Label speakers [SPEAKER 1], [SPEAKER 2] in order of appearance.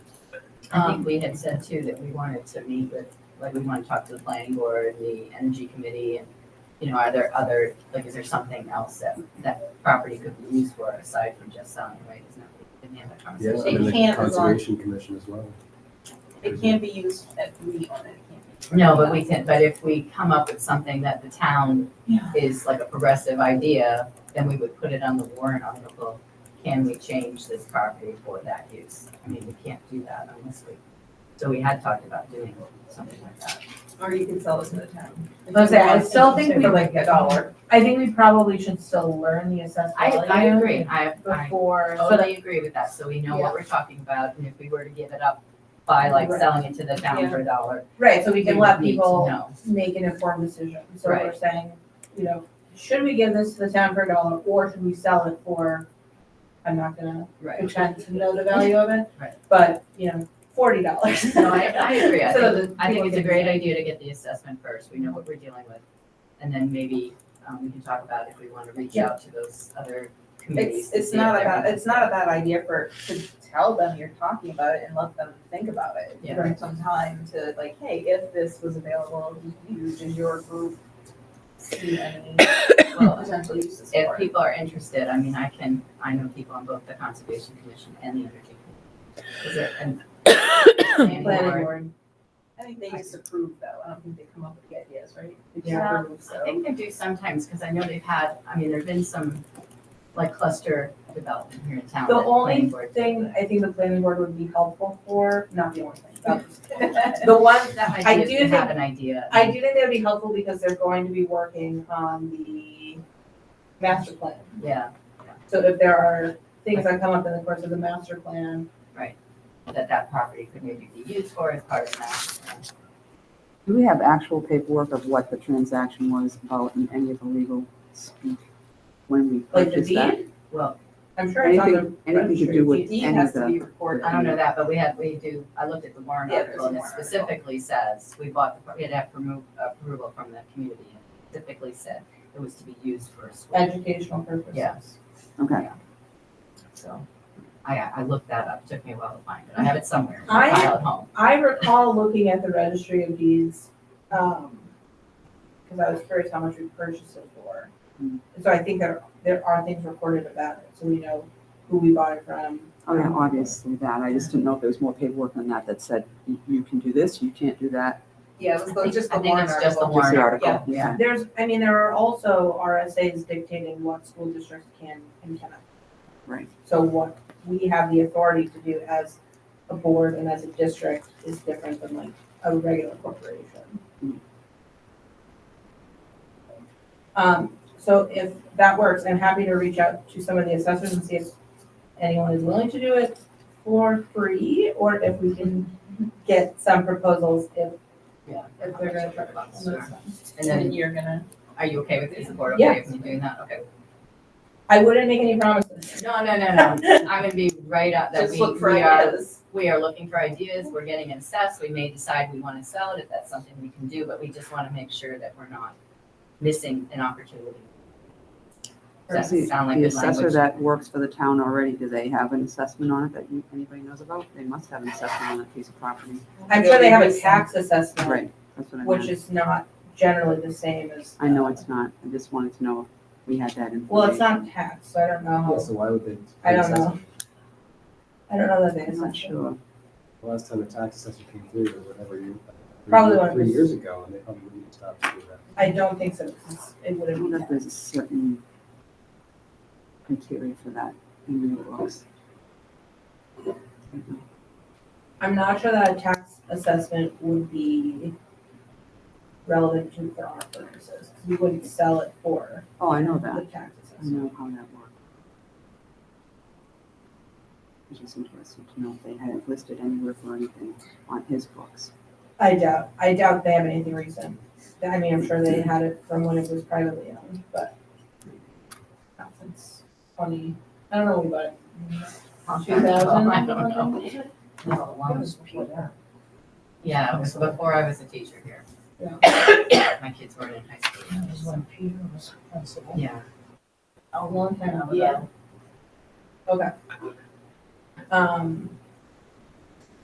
[SPEAKER 1] I think we had said too that we wanted to meet with, like, we want to talk to the planning board, the energy committee, and, you know, are there other, like, is there something else that, that property could be used for aside from just selling, right? Isn't that what we had that
[SPEAKER 2] Yeah,
[SPEAKER 1] conversation?
[SPEAKER 2] and
[SPEAKER 3] It
[SPEAKER 2] the
[SPEAKER 3] can't as long-
[SPEAKER 2] Conservation Commission as well.
[SPEAKER 3] It can be used, that we own it, it can't be.
[SPEAKER 1] No, but we can, but if we come up with something that the town
[SPEAKER 3] Yeah.
[SPEAKER 1] is like a progressive idea, then we would put it on the warrant article. Can we change this property for that use? I mean, we can't do that unless we, so we had talked about doing something like that.
[SPEAKER 3] Or you can sell it to the town.
[SPEAKER 4] I was gonna say, I still think we-
[SPEAKER 3] For like a dollar.
[SPEAKER 4] I think we probably should still learn the assessed
[SPEAKER 1] I, I
[SPEAKER 4] value
[SPEAKER 1] agree, I, I
[SPEAKER 4] Before, so that,
[SPEAKER 1] totally agree with that, so we know what we're talking about, and if we were to give it up by like
[SPEAKER 4] Right.
[SPEAKER 1] selling it to the town for a dollar.
[SPEAKER 4] right, so we can
[SPEAKER 1] would
[SPEAKER 4] let
[SPEAKER 1] need to
[SPEAKER 4] people
[SPEAKER 1] know.
[SPEAKER 4] make an informed decision. So we're
[SPEAKER 1] Right.
[SPEAKER 4] saying, you know, should we give this to the town for a dollar or should we sell it for, I'm not gonna
[SPEAKER 1] Right.
[SPEAKER 4] pretend to know the value of it,
[SPEAKER 1] Right.
[SPEAKER 4] but, you know, forty dollars.
[SPEAKER 1] No, I, I agree. I
[SPEAKER 4] So
[SPEAKER 1] think,
[SPEAKER 4] that
[SPEAKER 1] I think
[SPEAKER 4] people
[SPEAKER 1] it's a
[SPEAKER 4] can-
[SPEAKER 1] great idea to get the assessment first. We know what we're dealing with. And then maybe, um, we can talk about if we want to reach out to those other committees.
[SPEAKER 3] It's,
[SPEAKER 1] to
[SPEAKER 3] it's
[SPEAKER 1] see if
[SPEAKER 3] not a
[SPEAKER 1] they're
[SPEAKER 3] bad, it's not a bad idea for, to tell them you're talking about it and let them think about it.
[SPEAKER 1] Yeah.
[SPEAKER 3] Give them some time to like, hey, if this was available, do you, does your group see any
[SPEAKER 1] interested. Well,
[SPEAKER 3] potential uses for it?
[SPEAKER 1] If people are interested, I mean, I can, I know people on both the Conservation Commission and the Energy Commission. Is it, and. planning
[SPEAKER 4] Planning
[SPEAKER 1] board.
[SPEAKER 4] board.
[SPEAKER 3] I think they just approve though, I don't think they come up with the ideas, right? They just
[SPEAKER 1] Yeah.
[SPEAKER 3] approve,
[SPEAKER 1] I
[SPEAKER 3] so.
[SPEAKER 1] think they do sometimes, because I know they've had, I mean, there've been some, like cluster development here in town.
[SPEAKER 4] The
[SPEAKER 1] that planning
[SPEAKER 4] only
[SPEAKER 1] board-
[SPEAKER 4] Thing I think the planning board would be helpful for, not the only thing, but
[SPEAKER 3] But
[SPEAKER 4] the one
[SPEAKER 1] That
[SPEAKER 4] I
[SPEAKER 1] might be if
[SPEAKER 4] do
[SPEAKER 1] you have
[SPEAKER 4] think-
[SPEAKER 1] an idea.
[SPEAKER 4] I do think that would be helpful because they're going to be working on the master plan.
[SPEAKER 1] Yeah,
[SPEAKER 4] So if there are things that come up in the course of the master plan,
[SPEAKER 1] that that property could maybe be used for as part of that.
[SPEAKER 5] Do we have actual paperwork of what the transaction was about in any of the legal speak when we
[SPEAKER 4] like the
[SPEAKER 5] purchased that?
[SPEAKER 4] deed,
[SPEAKER 1] Well,
[SPEAKER 4] I'm sure it's on the
[SPEAKER 5] Anything, anything to do with
[SPEAKER 3] Deed
[SPEAKER 5] any of
[SPEAKER 3] has to
[SPEAKER 5] the,
[SPEAKER 3] be recorded.
[SPEAKER 1] I don't know that, but we had, we do, I looked at the warrant
[SPEAKER 3] Yeah,
[SPEAKER 1] article and it
[SPEAKER 3] there's a warrant article.
[SPEAKER 1] specifically says, we bought, the pro- it had promo- approval from the community. and it Specifically said it was to be used for a school,
[SPEAKER 4] educational purposes.
[SPEAKER 1] Yes.
[SPEAKER 5] okay.
[SPEAKER 1] so I, I looked that up, took me a while to find it, I have it somewhere,
[SPEAKER 4] I-
[SPEAKER 1] file at home.
[SPEAKER 4] I recall looking at the registry of deeds, um, because I was curious how much we purchased it for.
[SPEAKER 5] Hmm.
[SPEAKER 4] So I think there, there are things recorded about it, so we know who we bought it from.
[SPEAKER 5] Oh, yeah, obviously that. I just didn't know if there was more paperwork on that that said, you- you can do this, you can't do that.
[SPEAKER 3] Yeah, it was
[SPEAKER 1] I
[SPEAKER 3] the-
[SPEAKER 1] think-
[SPEAKER 3] just
[SPEAKER 1] I
[SPEAKER 3] the
[SPEAKER 1] think
[SPEAKER 3] warrant
[SPEAKER 1] it's just the
[SPEAKER 3] article.
[SPEAKER 5] Just the
[SPEAKER 1] Warrant,
[SPEAKER 5] article, yeah.
[SPEAKER 4] There's, I mean, there are also RSAs dictating what school districts can and cannot.
[SPEAKER 5] Right.
[SPEAKER 4] So what we have the authority to do as a board and as a district is different than like a regular corporation.
[SPEAKER 5] Mm.
[SPEAKER 4] Um, so if that works, I'm happy to reach out to some of the assessors and see if anyone is willing to do it for free, or if we can get some proposals if,
[SPEAKER 1] Yeah.
[SPEAKER 4] if they're gonna try
[SPEAKER 1] About
[SPEAKER 4] to.
[SPEAKER 1] this. And
[SPEAKER 3] And then
[SPEAKER 1] then,
[SPEAKER 3] you're gonna,
[SPEAKER 1] are you okay with, is the board okay with me doing that? Okay.
[SPEAKER 4] I wouldn't make any promises.
[SPEAKER 1] No, no, no, no, I'm gonna be right up that
[SPEAKER 3] just
[SPEAKER 1] we,
[SPEAKER 3] look for
[SPEAKER 1] we are
[SPEAKER 3] ideas.
[SPEAKER 1] we are looking for ideas, we're getting assessed, we may decide we want to sell it, if that's something we can do, but we just want to make sure that we're not missing an opportunity. Does that
[SPEAKER 5] The-
[SPEAKER 1] sound like
[SPEAKER 5] The
[SPEAKER 1] good
[SPEAKER 5] assessor
[SPEAKER 1] language?
[SPEAKER 5] that works for the town already, do they have an assessment on it that you- anybody knows about? They must have an assessment on that piece of property.
[SPEAKER 4] I'm sure they have a
[SPEAKER 3] Maybe
[SPEAKER 4] tax assessment,
[SPEAKER 5] Right, that's what I
[SPEAKER 4] which
[SPEAKER 5] meant.
[SPEAKER 4] is not generally the same as.
[SPEAKER 5] I know it's not. I just wanted to know if we had that information.
[SPEAKER 4] Well, it's not tax, so I don't know.
[SPEAKER 2] Yeah,
[SPEAKER 4] how-
[SPEAKER 2] so why would they?
[SPEAKER 4] Oh. I don't know. I don't know that they.
[SPEAKER 5] I'm not sure.
[SPEAKER 2] The Last time the tax assessor came through, or whatever you.
[SPEAKER 4] Probably one of
[SPEAKER 2] Three
[SPEAKER 4] his-
[SPEAKER 2] years ago, and they probably wouldn't have stopped to do that.
[SPEAKER 4] I don't think so, because it
[SPEAKER 5] I don't
[SPEAKER 4] wouldn't
[SPEAKER 5] know
[SPEAKER 4] be
[SPEAKER 5] if
[SPEAKER 4] that.
[SPEAKER 5] there's a certain criteria for that in the laws.
[SPEAKER 4] I'm not sure that a tax assessment would be relevant to for our purposes. 'cause We wouldn't sell it for
[SPEAKER 5] Oh, I know
[SPEAKER 4] the
[SPEAKER 5] that.
[SPEAKER 4] tax
[SPEAKER 5] I
[SPEAKER 4] assessment.
[SPEAKER 5] know how that works. It's just interesting to know if they had it listed anywhere for anything on his books.
[SPEAKER 4] I doubt, I doubt they have anything recent. I mean, I'm sure they had it from when it was privately owned, but not since twenty, I don't know, when we bought it.
[SPEAKER 1] Two thousand? I don't know.
[SPEAKER 4] know.
[SPEAKER 1] No, long before that. Yeah, it was before I was a teacher here.
[SPEAKER 4] Yeah.
[SPEAKER 1] My kids weren't in high school. yet, so-
[SPEAKER 6] Peter was principal. Oh,
[SPEAKER 1] Yeah,
[SPEAKER 4] A long time ago.
[SPEAKER 3] Yeah.
[SPEAKER 4] Okay. Um,